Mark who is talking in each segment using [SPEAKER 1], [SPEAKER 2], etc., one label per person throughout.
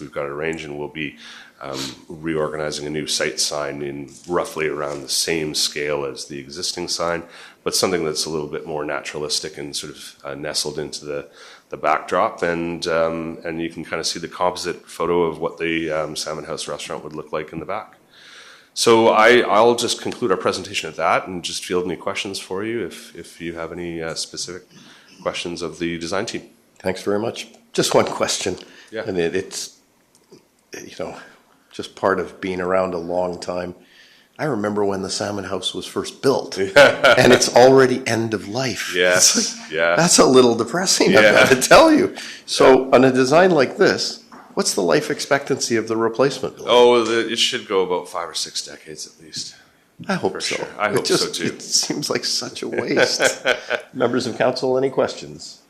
[SPEAKER 1] we've got arranged, and we'll be um, reorganizing a new site sign in roughly around the same scale as the existing sign, but something that's a little bit more naturalistic and sort of uh, nestled into the, the backdrop. And, um, and you can kind of see the composite photo of what the um, Salmon House restaurant would look like in the back. So I, I'll just conclude our presentation at that and just field any questions for you if, if you have any uh, specific questions of the design team.
[SPEAKER 2] Thanks very much. Just one question.
[SPEAKER 1] Yeah.
[SPEAKER 2] And it, it's, you know, just part of being around a long time. I remember when the Salmon House was first built, and it's already end of life.
[SPEAKER 1] Yes,
[SPEAKER 2] It's like,
[SPEAKER 1] yeah.
[SPEAKER 2] That's a little depressing,
[SPEAKER 1] Yeah.
[SPEAKER 2] I've got to tell you. So, on a design like this, what's the life expectancy of the replacement? building?
[SPEAKER 1] Oh, the, it should go about five or six decades at least.
[SPEAKER 2] I hope so.
[SPEAKER 1] Oh, sure. I
[SPEAKER 2] It
[SPEAKER 1] hope so,
[SPEAKER 2] just-
[SPEAKER 1] too.
[SPEAKER 2] It seems like such a waste. Members of council, any questions?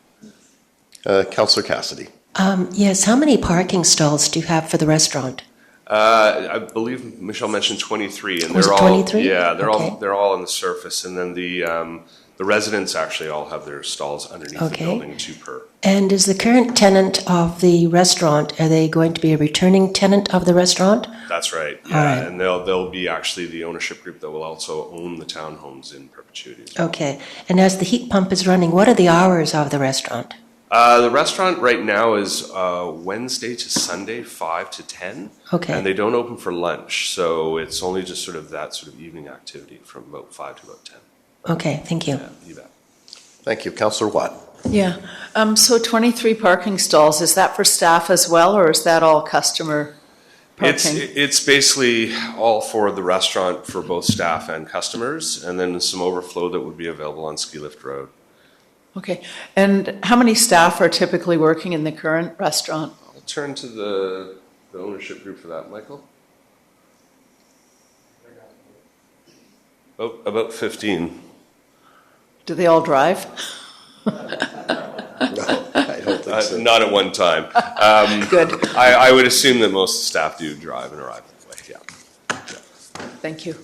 [SPEAKER 2] Uh, Councillor Cassidy.
[SPEAKER 3] Um, Yes, how many parking stalls do you have for the restaurant?
[SPEAKER 1] Uh, I believe Michelle mentioned 23, and
[SPEAKER 3] Was
[SPEAKER 1] they're
[SPEAKER 3] it
[SPEAKER 1] all
[SPEAKER 3] 23?
[SPEAKER 1] yeah, they're all
[SPEAKER 3] Okay.
[SPEAKER 1] they're all on the surface, and then the um, the residents actually all have their stalls underneath the
[SPEAKER 3] Okay.
[SPEAKER 1] building, two per.
[SPEAKER 3] And is the current tenant of the restaurant, are they going to be a returning tenant of the restaurant?
[SPEAKER 1] That's right.
[SPEAKER 3] All
[SPEAKER 1] Yeah,
[SPEAKER 3] right.
[SPEAKER 1] and they'll they'll be actually the ownership group that will also own the townhomes in perpetuity. as well.
[SPEAKER 3] Okay. And as the heat pump is running, what are the hours of the restaurant?
[SPEAKER 1] Uh, the restaurant right now is uh, Wednesday to Sunday, five to ten.
[SPEAKER 3] Okay.
[SPEAKER 1] And they don't open for lunch, so it's only just sort of that sort of evening activity from about five to about ten.
[SPEAKER 3] Okay, thank you.
[SPEAKER 1] Yeah, you bet.
[SPEAKER 2] Thank you. Councillor Watt.
[SPEAKER 4] Yeah, um, so 23 parking stalls, is that for staff as well, or is that all customer
[SPEAKER 1] It's,
[SPEAKER 4] parking?
[SPEAKER 1] it's basically all for the restaurant for both staff and customers, and then some overflow that would be available on Ski Lift Road.
[SPEAKER 4] Okay, and how many staff are typically working in the current restaurant?
[SPEAKER 1] I'll turn to the, the ownership group for that, Michael. Oh, about fifteen.
[SPEAKER 4] Do they all drive?
[SPEAKER 2] No, I don't think
[SPEAKER 1] Uh,
[SPEAKER 2] so.
[SPEAKER 1] Not at one time.
[SPEAKER 4] Good,
[SPEAKER 1] I, I would assume that most staff do drive and arrive that way, yeah.
[SPEAKER 4] thank you.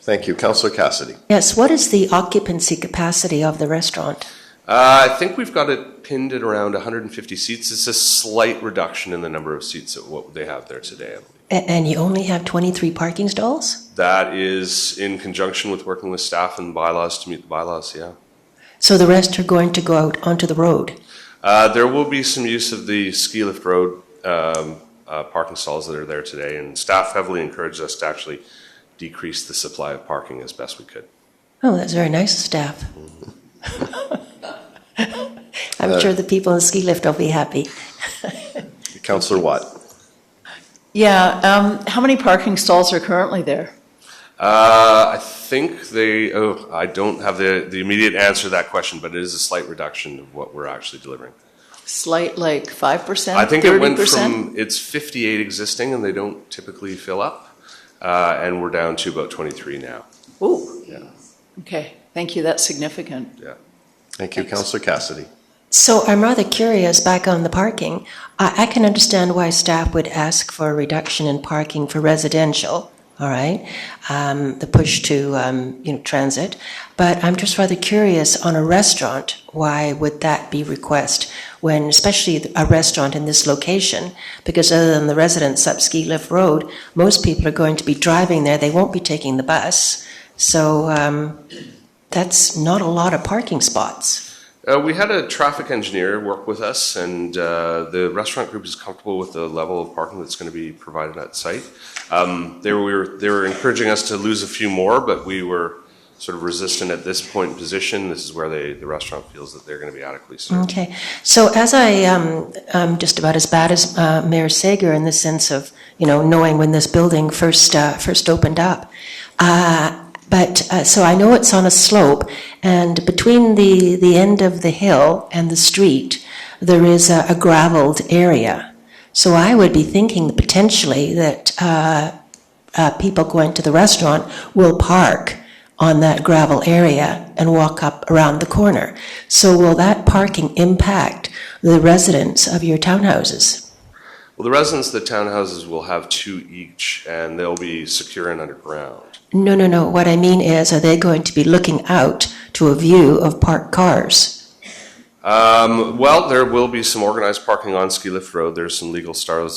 [SPEAKER 2] Thank you. Councillor Cassidy.
[SPEAKER 3] Yes, what is the occupancy capacity of the restaurant?
[SPEAKER 1] Uh, I think we've got it pinned at around hundred and fifty seats. It's a slight reduction in the number of seats of what they have there today, I believe.
[SPEAKER 3] A- And you only have 23 parking stalls?
[SPEAKER 1] That is in conjunction with working with staff and bylaws to meet the bylaws, yeah.
[SPEAKER 3] So the rest are going to go out onto the road?
[SPEAKER 1] Uh, there will be some use of the ski lift road um, uh, parking stalls that are there today, and staff heavily encouraged us to actually decrease the supply of parking as best we could.
[SPEAKER 3] Oh, that's very nice of staff. I'm sure the people in the ski lift will be happy.
[SPEAKER 2] Councillor Watt.
[SPEAKER 4] Yeah, um, how many parking stalls are currently there?
[SPEAKER 1] Uh, I think they, oh, I don't have the, the immediate answer to that question, but it is a slight reduction of what we're actually delivering.
[SPEAKER 4] Slight, like 5%, 30%?
[SPEAKER 1] I think it went from, it's 58 existing, and they don't typically fill up, uh, and we're down to about 23 now,
[SPEAKER 4] Ooh, okay, thank you, that's significant.
[SPEAKER 1] yeah.
[SPEAKER 2] Thank you. Councillor Cassidy.
[SPEAKER 3] So I'm rather curious back on the parking. I, I can understand why staff would ask for a reduction in parking for residential, all right? Um, the push to um, you know transit, but I'm just rather curious on a restaurant. Why would that be request when, especially a restaurant in this location? Because other than the residents up Ski Lift Road, most people are going to be driving there. They won't be taking the bus, so um, that's not a lot of parking spots.
[SPEAKER 1] Uh, we had a traffic engineer work with us, and uh, the restaurant group is comfortable with the level of parking that's going to be provided at site. Um, they were they were encouraging us to lose a few more, but we were sort of resistant at this point in position. This is where they, the restaurant feels that they're going to be adequately served.
[SPEAKER 3] Okay, so as I, um, I'm just about as bad as uh, Mayor Sager in the sense of, you know, knowing when this building first, uh, first opened up. Uh, But, uh, so I know it's on a slope, and between the, the end of the hill and the street, there is a a gravelled area. So I would be thinking potentially that uh, uh, people going to the restaurant will park on that gravel area and walk up around the corner. So will that parking impact the residents of your townhouses?
[SPEAKER 1] Well, the residents of the townhouses will have two each, and they'll be secure and underground.
[SPEAKER 3] No, no, no. What I mean is, are they going to be looking out to a view of parked cars?
[SPEAKER 1] Um, well, there will be some organized parking on Ski Lift Road. There's some legal stars